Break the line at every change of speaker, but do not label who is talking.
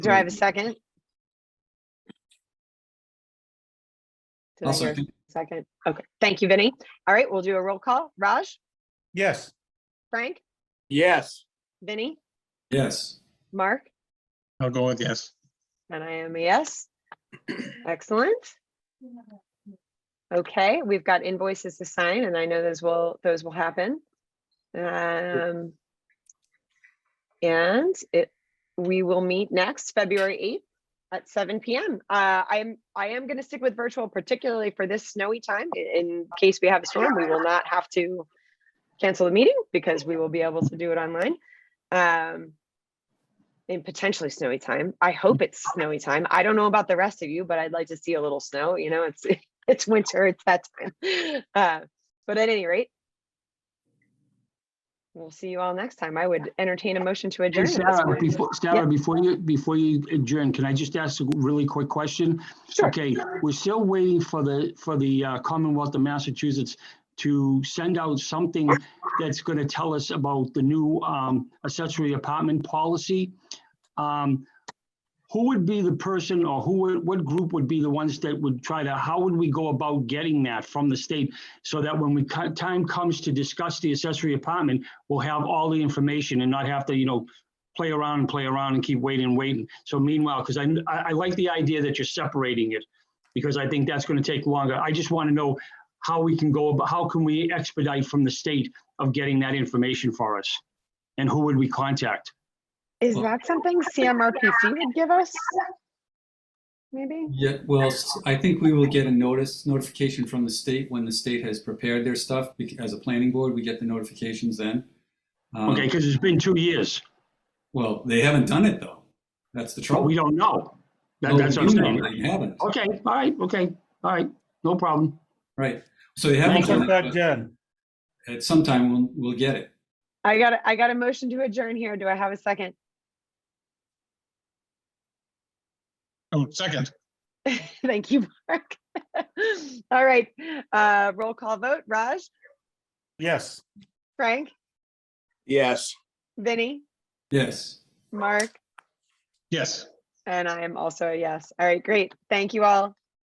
Do I have a second? Did I
I'll
hear a
second.
Second, okay, thank you, Vinny. All right, we'll do a roll call. Raj,
Yes.
Frank,
Yes.
Vinny,
Yes,
Mark,
I'll go with yes.
and I am a yes. Excellent. Okay, we've got invoices to sign and I know those will, those will happen. Um. And it, we will meet next February eighth at seven PM. Uh, I'm, I am gonna stick with virtual particularly for this snowy time. I- In case we have a storm, we will not have to cancel the meeting because we will be able to do it online. Um. In potentially snowy time. I hope it's snowy time. I don't know about the rest of you, but I'd like to see a little snow, you know, it's, it's winter, it's that time. Uh, but at any rate, we'll see you all next time. I would entertain a motion to
Hey,
adjourn. at this
Sarah,
point.
before, Sarah, before you, before you adjourn, can I just ask a really quick question?
Sure.
Okay, we're still waiting for the, for the uh, Commonwealth of Massachusetts to send out something that's going to tell us about the new um, accessory apartment policy. Um, Who would be the person or who, would- what group would be the ones that would try to, how would we go about getting that from the state? So that when we, co- time comes to discuss the accessory apartment, we'll have all the information and not have to, you know, play around and play around and keep waiting and waiting. So meanwhile, because I, I I like the idea that you're separating it because I think that's going to take longer. I just want to know how we can go, about how can we expedite from the state of getting that information for us? And who would we contact?
Is
Well-
that something CMRPC would give us? Maybe?
yeah, well, s- I think we will get a notice, notification from the state when the state has prepared their stuff. bec- As a planning board, we get the notifications then. Um,
Okay, because it's been two years,
Well, they haven't done it though. That's the
but
trouble.
we don't know. That-
Well,
That's what I'm
you know
saying. Oh.
They haven't,
Okay, all right, okay, all right, no problem.
right. So they
Thank
haven't done
you.
that,
it,
Jen.
but at some time we'll, we'll get it.
I got, a- I got a motion to adjourn here. Do I have a second?
Oh, second.
Thank you, Mark. All right, uh, roll call vote. Raj,
Yes.
Frank,
Yes.
Vinny,
Yes.
Mark,
Yes.
and I am also a yes. All right, great. Thank you all.